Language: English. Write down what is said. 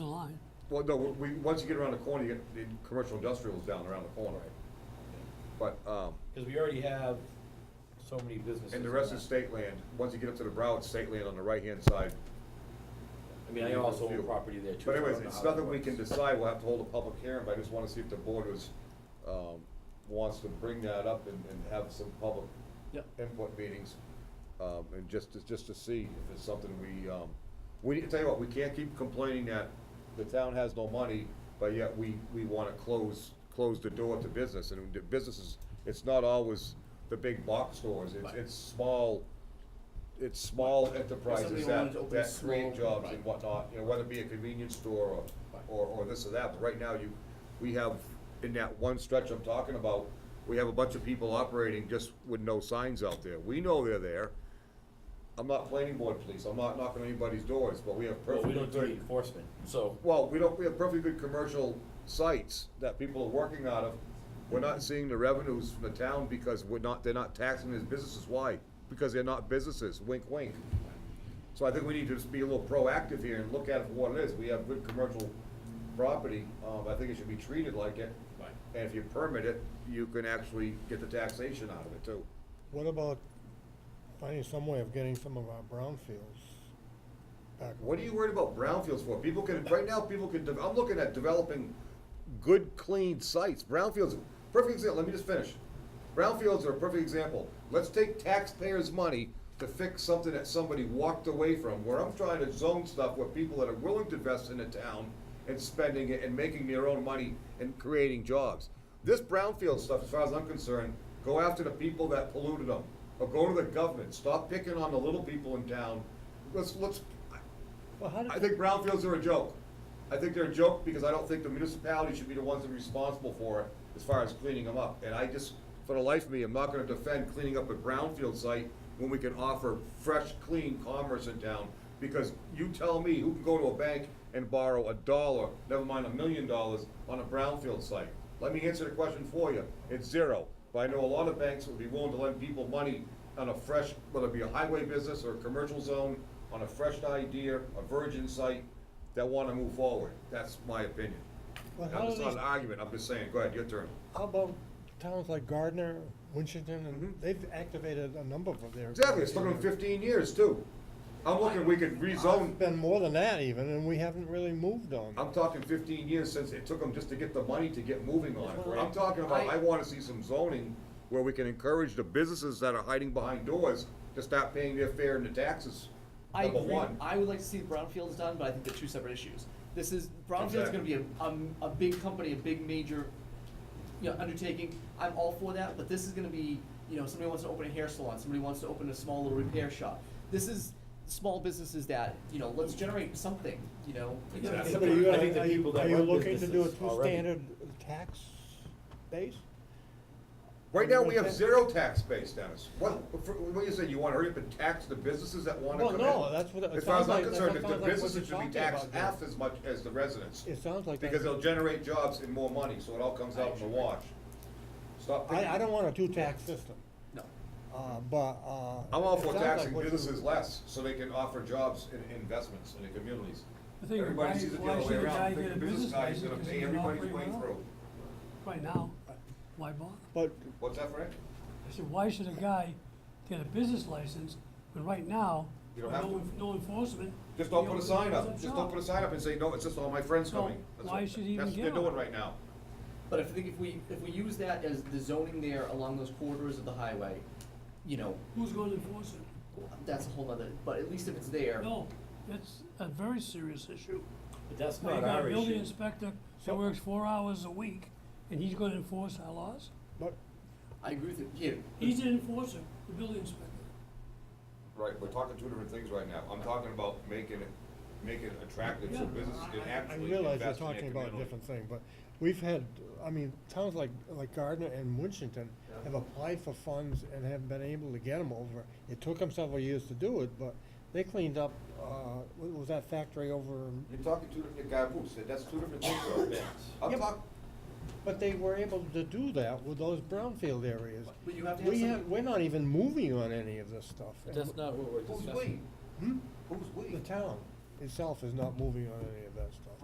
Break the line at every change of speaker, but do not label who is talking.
Well, no, we, once you get around the corner, you get, the commercial industrial's down around the corner. But, um,
Because we already have so many businesses.
and the rest
in
is
that.
state land. Once you get up to the brow, it's state land on the right-hand side.
I mean, I also own property there
But
too. so I
anyways,
don't know
it's
how that
nothing we
works.
can decide, we'll have to hold a public hearing, but I just wanna see if the board was, um, wants to bring that up and, and have some public
Yep.
input meetings, um, and just, to- just to see if it's something we, um, we, tell you what, we can't keep complaining that the town has no money, but yet we, we wanna close, close the door to business, and the businesses, it's not always the big box stores, it's,
Right.
it's small, it's small enterprises
Somebody wanted to
that,
open
that
small-
create jobs and
right.
whatnot, you know, whether it be a convenience store
Right.
or, or, or this or that, but right now you, we have, in that one stretch I'm talking about, we have a bunch of people operating just with no signs out there, we know they're there. I'm not planning board police, I'm not knocking anybody's doors, but we have
Well,
perfectly
we
good.
don't do the enforcement, so.
Well, we don't, we have perfectly good commercial sites that people are working out of. We're not seeing the revenues from the town because we're not, they're not taxing these businesses. Why? Because they're not businesses, wink, wink. So I think we need to just be a little proactive here and look at it for what it is. We have good commercial property, um, I think it should be treated like it.
Right.
And if you permit it, you can actually get the taxation out of it too.
What about finding some way of getting some of our brownfields back?
What are you worried about brownfields for? People can, right now, people can, de- I'm looking at developing good, clean sites. Brownfields, perfect example, let me just finish. Brownfields are a perfect example. Let's take taxpayers' money to fix something that somebody walked away from, where I'm trying to zone stuff where people that are willing to invest in the town and spending it and making their own money and creating jobs. This brownfield stuff, as far as I'm concerned, go after the people that polluted them, or go to the government. Stop picking on the little people in town. Let's, let's,
Well, how did,
I think brownfields are a joke. I think they're a joke because I don't think the municipality should be the ones that are responsible for it as far as cleaning them up. And I just, for the life of me, I'm not gonna defend cleaning up a brownfield site when we can offer fresh, clean commerce in town. Because you tell me who can go to a bank and borrow a dollar, never mind a million dollars, on a brownfield site? Let me answer the question for you. It's zero. But I know a lot of banks would be willing to lend people money on a fresh, whether it be a highway business or a commercial zone, on a fresh idea, a virgin site, that wanna move forward. That's my opinion.
Well, how
I'm just
do
not
these-
an argument, I'm just saying, go ahead, your turn.
How about towns like Gardner, Winchton, and
Mhm.
they've activated a number of their.
Exactly, it's looking at fifteen years too. I'm looking, we could rezone,
It's been more than that even, and we haven't really moved on.
I'm talking fifteen years since it took them just to get the money to get moving on it.
Right.
I'm talking about,
I-
I wanna see some zoning where we can encourage the businesses that are hiding behind doors to stop paying their fair and the taxes,
I
number
agree,
one.
I would like to see the brownfields done, but I think they're two separate issues. This is, brownfield's
Exactly.
gonna be a, um, a big company, a big major, you know, undertaking, I'm all for that, but this is gonna be, you know, somebody wants to open a hair salon, somebody wants to open a small little repair shop. This is small businesses that, you know, let's generate something, you know? It's gonna
Exactly.
take-
But are you-
I think the
are you-
people that run
Are you looking to
businesses
do a
already-
two-standard tax base?
Right now, we have zero tax base, Dennis. What, for- what you say, you wanna hurry up and tax the businesses that wanna
Well,
come in?
no, that's what it
As far as I'm
sounds like- that's what
concerned, if
sounds
the
like what
businesses
you're
should be
talking
taxed
about,
half
Joe.
as much as the residents,
It sounds like that.
because they'll generate jobs and more money, so it all comes out in the wash. Stop
I,
thinking.
I don't want a two-tax system,
No.
uh, but, uh.
I'm all
it
for
sounds like
taxing
what you-
businesses less, so they can offer jobs and investments in the communities.
The thing is,
Everybody
why-
sees it the
why
other way
should a guy
around, think
get
the
a
business
business
guy is gonna
license
pay
if he's not
everybody's way
operating well?
through.
right now, why bother?
But
What's that, Frank?
I said, why should a guy get a business license when right now,
You
with
don't have
no,
to.
en- no enforcement?
Just don't
he
put a
opens
sign
up
up,
a
just don't
shop.
put a sign up and say, no, it's just all my friends
So,
coming. That's
why
what-
should he even
That's what they're
get one?
doing right now.
But if, I think if we, if we use that as the zoning there along those corridors of the highway, you know,
Who's gonna enforce it?
that's a whole nother, but at least if it's there.
No, it's a very serious issue.
But that's
Now, you
not
got a
our
building
issue.
inspector
So-
that works four hours a week, and he's gonna enforce our laws?
But
I agree with you, yeah.
He's an enforcer, the building inspector.
Right, we're talking two different things right now. I'm talking about making it, making it attractive so
Yeah,
businesses can
I- I-
I
actually
realize you're
invest in their
talking about a
community.
different thing, but we've had, I mean, towns like, like Gardner and Winchton have applied for funds and haven't been able to get them over. It took them several years to do it, but they cleaned up, uh, what was that factory over, in-
You're talking two different, guy, Bruce, that's two different things though. I'm
Yep.
talking,
but they were able to do that with those brownfield areas.
But you have to have
We
some-
have, we're not even moving on any of this stuff.
But that's not what we're
who's
discussing.
we?
Hmm?
Who's we?
The town itself is not moving on any of that stuff.